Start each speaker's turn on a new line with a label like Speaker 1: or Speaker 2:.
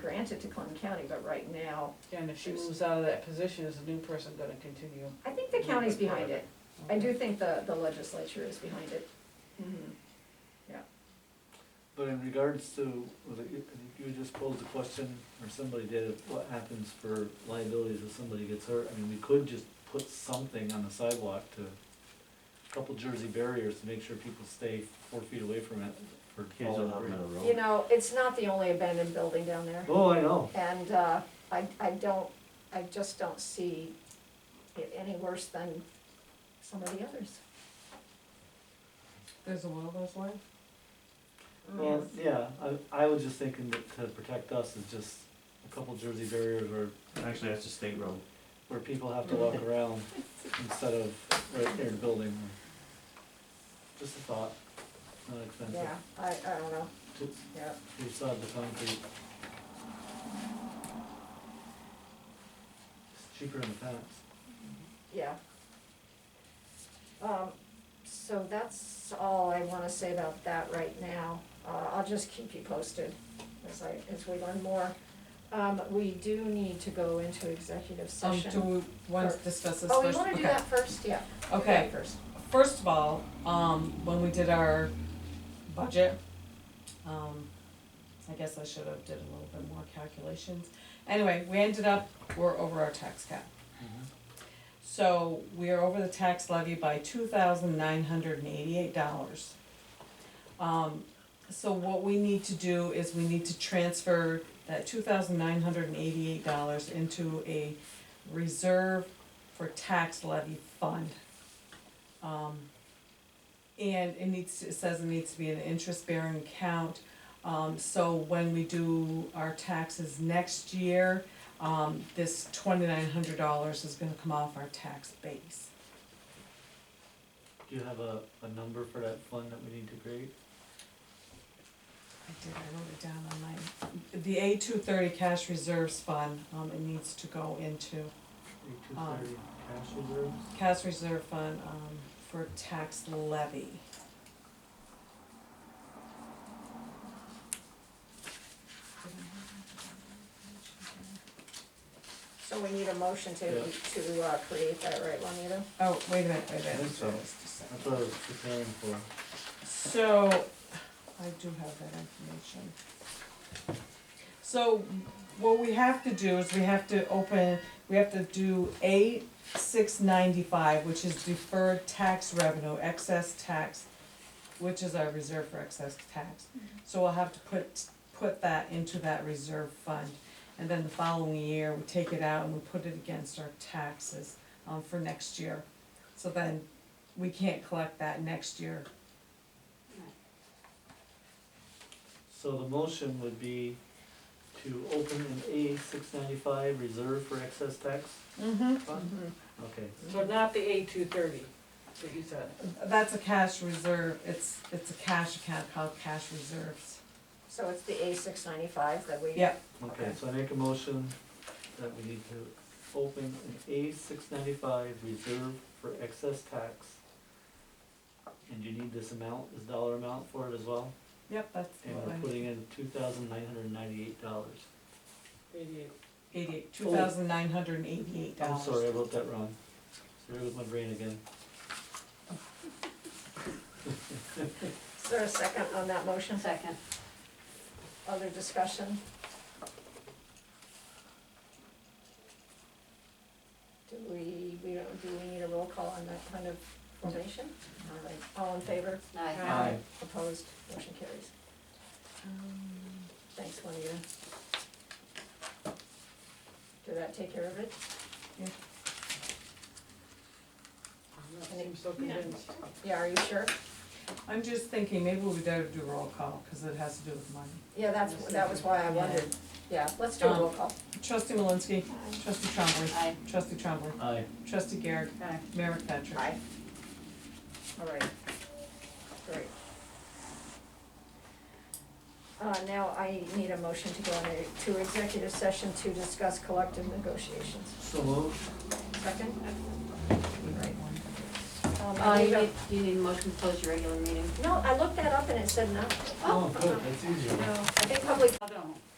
Speaker 1: grant it to Clinton County, but right now,
Speaker 2: And if she moves out of that position, is the new person gonna continue?
Speaker 1: I think the county's behind it. I do think the, the legislature is behind it. Mhm.
Speaker 3: But in regards to, was it you I think you just posed the question, or somebody did, of what happens for liabilities if somebody gets hurt? I mean, we could just put something on the sidewalk to, a couple jersey barriers to make sure people stay four feet away from it for
Speaker 4: Kids
Speaker 3: all
Speaker 4: on
Speaker 3: the
Speaker 4: the
Speaker 3: rain.
Speaker 1: You
Speaker 4: road.
Speaker 1: know, it's not the only abandoned building down there.
Speaker 3: Oh, I know.
Speaker 1: And uh, I, I don't, I just don't see it any worse than some of the others.
Speaker 5: There's a will, there's way.
Speaker 1: Mm.
Speaker 3: Well, yeah, I, I was just thinking that to protect us is just a couple jersey barriers where,
Speaker 4: Actually, that's a state road.
Speaker 3: where people have to walk around instead of right near the building. Just a thought, not expensive.
Speaker 1: Yeah, I, I don't know,
Speaker 3: Just-
Speaker 1: yeah.
Speaker 3: You saw the concrete. It's cheaper in the past.
Speaker 1: Yeah. Um, so that's all I wanna say about that right now. Uh, I'll just keep you posted as I, as we learn more. Um, we do need to go into executive
Speaker 5: Um, do
Speaker 1: session.
Speaker 5: we want to
Speaker 1: Or-
Speaker 5: discuss this first?
Speaker 1: Oh, we wanna do
Speaker 5: Okay.
Speaker 1: that first, yeah. do that
Speaker 5: Okay.
Speaker 1: First.
Speaker 5: First of all, um, when we did our budget, um, I guess I should have did a little bit more calculations. Anyway, we ended up, we're over our tax cap. So we are over the tax levy by two thousand nine hundred and eighty-eight dollars. Um, so what we need to do is we need to transfer that two thousand nine hundred and eighty-eight dollars into a reserve for tax levy fund. Um, and it needs, to- it says it needs to be an interest-bearing account, um, so when we do our taxes next year, um, this twenty-nine hundred dollars is gonna come off our tax base.
Speaker 3: Do you have a, a number for that fund that we need to create?
Speaker 5: I did, I wrote it down on my, the A two thirty cash reserves fund, um, it needs to go into
Speaker 3: Eight two
Speaker 5: Um.
Speaker 3: thirty cash reserves?
Speaker 5: cash reserve fund, um, for tax levy.
Speaker 1: So we need a motion to,
Speaker 3: Yeah.
Speaker 1: to, uh, create that right, Juanita?
Speaker 5: Oh, wait a minute, wait a minute.
Speaker 3: I think so.
Speaker 5: Just a second.
Speaker 3: That's what I was preparing for.
Speaker 5: So, I do have that information. So, what we have to do is we have to open, we have to do A six ninety-five, which is deferred tax revenue, excess tax, which is our reserve for excess tax. So we'll have to put, put that into that reserve fund. And then the following year, we take it out and we put it against our taxes, um, for next year. So then, we can't collect that next year
Speaker 3: So the motion would be to open an A six ninety-five reserve for excess tax
Speaker 5: Mm-hmm.
Speaker 3: fund? Okay,
Speaker 2: So not the A two thirty that you said.
Speaker 5: That's a cash reserve, it's, it's a cash account called cash reserves.
Speaker 1: So it's the A six ninety-five that we.
Speaker 5: Yep,
Speaker 3: okay, so I make a motion that we need to open an A six ninety-five reserve for excess tax. And you need this amount, this dollar amount for it as well?
Speaker 5: yep, that's
Speaker 3: And
Speaker 5: what
Speaker 3: we're
Speaker 5: I,
Speaker 3: putting in two thousand nine hundred and ninety-eight dollars.
Speaker 2: Eighty-eight.
Speaker 5: eighty-eight, two thousand nine hundred and eighty-eight
Speaker 3: Oh, I'm
Speaker 5: dollars.
Speaker 3: sorry, I wrote that wrong. Sorry with my brain again.
Speaker 1: Is there a second on that motion? Second. Other discussion? Do we, we don't, do we need a roll call on that kind of formation? All right, all in favor?
Speaker 3: Aye.
Speaker 1: Opposed, motion carries. Um, Thanks, Juanita. Did that take care of it?
Speaker 2: I'm not seem so convinced.
Speaker 1: Yeah, are you sure?
Speaker 5: I'm just thinking, maybe we better do roll call, cause it has to do with money.
Speaker 1: Yeah, Um, that's, that was why I wondered. Yeah, let's do a roll call.
Speaker 5: Trustee Malinsky. Trustee Trombley.
Speaker 6: Aye.
Speaker 5: Trustee Trombley.
Speaker 3: Aye.
Speaker 5: Trustee Garrett.
Speaker 2: Aye.
Speaker 5: Mayor McFetrich.
Speaker 1: Aye. All right, great. Uh, now I need a motion to go into executive session to discuss collective negotiations.
Speaker 3: So moved.
Speaker 1: Second? Right. Um,
Speaker 6: Oh,
Speaker 1: I
Speaker 6: you
Speaker 1: need a-
Speaker 6: need, you need a motion to close your regular meeting?
Speaker 1: no, I looked that up and it said no.
Speaker 3: Oh, good, that's easier.
Speaker 1: No, I think public,
Speaker 6: I don't.